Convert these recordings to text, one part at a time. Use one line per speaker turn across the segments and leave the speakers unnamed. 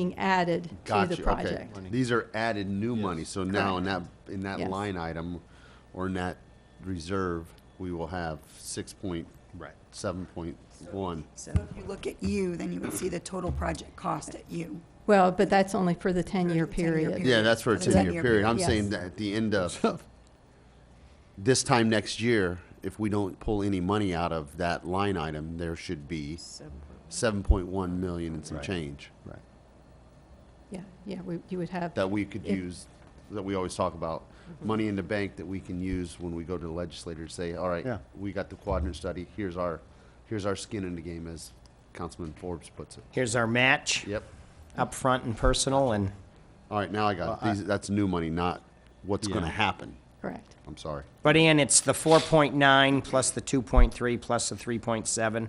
being added to
Gotcha,
the
okay.
project.
These are added new money, so now in that, in that
Yes.
line item, or in that reserve, we will have six point,
Right.
seven point one.
So if you look at U, then you would see the total project cost at U.
Well, but that's only for the 10-year period.
Yeah, that's for a
Is that
ten-year
your-
period, I'm saying
Yes.
that at the end of, this time next year, if we don't pull any money out of that line item, there should be seven point one million and some
Right.
change.
Right.
Yeah, yeah, we- you would have,
that we could
If-
use, that we always talk about,
Mm-hmm.
money in the bank that we can use when we go to the legislator to say, all right,
Yeah.
we got the quadrant study, here's our, here's our skin in the game, as Councilman Forbes puts it.
Here's our match,
Yep.
up front and personal, and
All right, now I got it. These, that's new money, not what's gonna
Yeah.
happen.
correct.
I'm sorry.
But Ann, it's the four point nine plus the two point three plus the three point seven.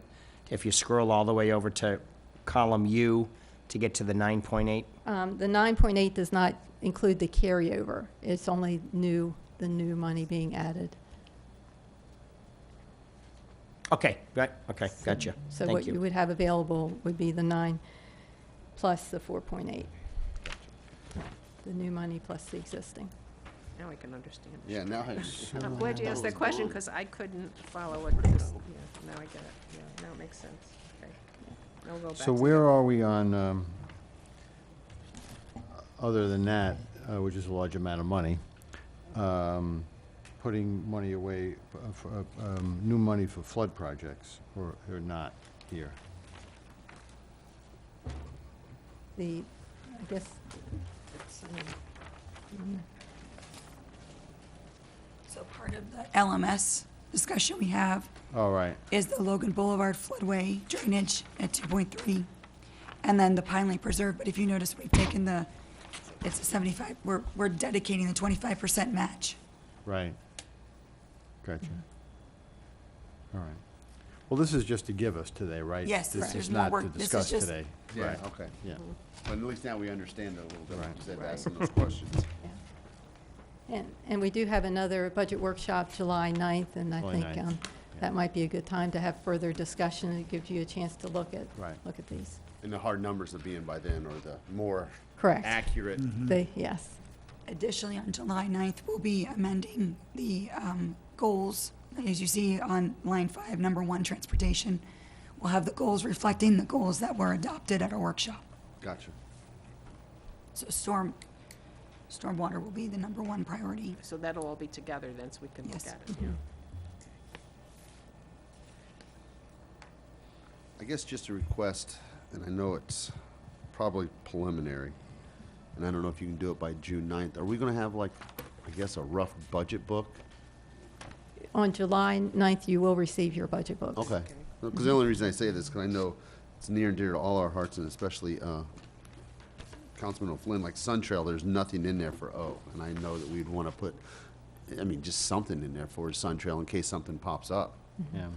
If you scroll all the way over to column U to get to the nine point eight.
Um, The 9.8 does not include the carryover. It's only new, the new money being added.
Okay, right, okay, gotcha.
So
Thank
what you
you.
would have available would be the 9 plus the 4.8. The new money plus the existing.
Now I can understand.
Yeah, now
I'm glad you
Oh.
asked that question, because I couldn't follow what this, yeah, now I get it, yeah, now it makes sense, okay. Now we'll go back
So
to
where are we on, um, other than that, uh, which is a large amount of money, um, putting money away, f- for, uh, um, new money for flood projects, or, or not here?
The, I guess, it's, um,
So part of the LMS discussion we have
All right,
is the Logan Boulevard floodway drainage at two point three, and then the Pine Lake Preserve, but if you notice, we've taken the, it's a seventy-five, we're, we're dedicating the twenty-five percent match.
right. Gotcha. All right. Well, this is just to give us today, right?
Yes,
This
right.
is
There's more
not to
work. This is
discuss
just-
today.
Yeah,
Right,
okay.
yeah.
But at least now we understand it a little bit,
Right.
instead of asking those questions.
And, and we do have another budget workshop July 9th, and I
July
think
9th,
um, that might be a good time to have further discussion. It gives you a chance to look at,
Right.
look at these.
And the hard numbers of being by then, or the more
Correct.
accurate.
They, yes,
Additionally, on July 9th, we'll be amending the um, goals. As you see on line five, number one, transportation. We'll have the goals reflecting the goals that were adopted at our workshop.
Gotcha.
So storm, stormwater will be the number one priority.
So that'll all be together then, so we can look
Yes.
at it. yeah.
I guess just a request, and I know it's probably preliminary, and I don't know if you can do it by June 9th. Are we gonna have like, I guess, a rough budget book?
on July 9th, you will receive your budget books.
Okay. Because the only reason I say this, because I know it's near and dear to all our hearts, and especially uh, Councilman O'Flynn, like Sun Trail, there's nothing in there for O. And I know that we'd want to put, I mean, just something in there for Sun Trail in case something pops up.
Yeah.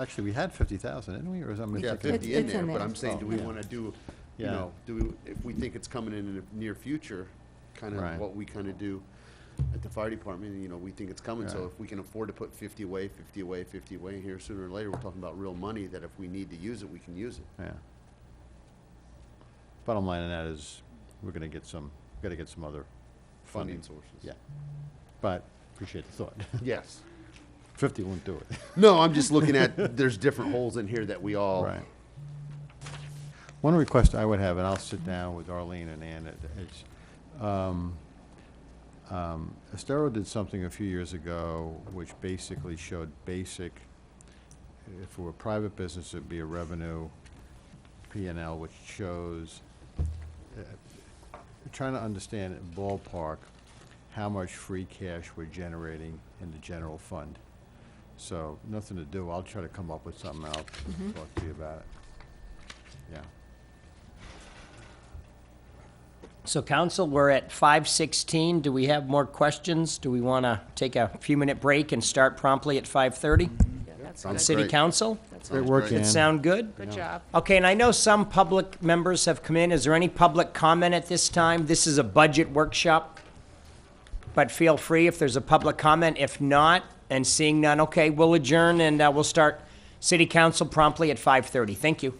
Actually, we had fifty thousand, didn't we, or is that
Yeah,
mistaken?
fifty in
it's
there,
in
but
there.
I'm saying, do we wanna do, you
Yeah.
know, do we, if we think it's coming in in the near future, kinda
Right.
what we kinda do at the fire department, you know, we think it's coming, so
Right.
if we can afford to put fifty away, fifty away, fifty away here, sooner or later, we're talking about real money, that if we need to use it, we can use it.
Yeah. Bottom line on that is, we're gonna get some, gotta get some other
Funding
funding.
sources.
Yeah. But, appreciate the thought.
Yes.
Fifty won't do it.
No, I'm just looking at, there's different holes in here that we all.
Right. One request I would have, and I'll sit down with Arlene and Ann, it- it's, um, um, Estero did something a few years ago which basically showed basic, if it were a private business, it'd be a revenue P and L, which shows, uh, trying to understand ballpark, how much free cash we're generating in the general fund. So, nothing to do, I'll try to come up with something, I'll talk to you about it. Yeah,
So council, we're at five sixteen. Do we have more questions? Do we want to take a few minute break and start promptly at five thirty?
Yeah, that's
Sounds
good.
City
Great.
council?
That's
Great
good.
work,
great.
Ann.
Sound good?
Good job.
Okay, and I know some public members have come in. Is there any public comment at this time? This is a budget workshop. But feel free if there's a public comment. If not, and seeing none, okay, we'll adjourn and uh, we'll start city council promptly at 5:30. Thank you.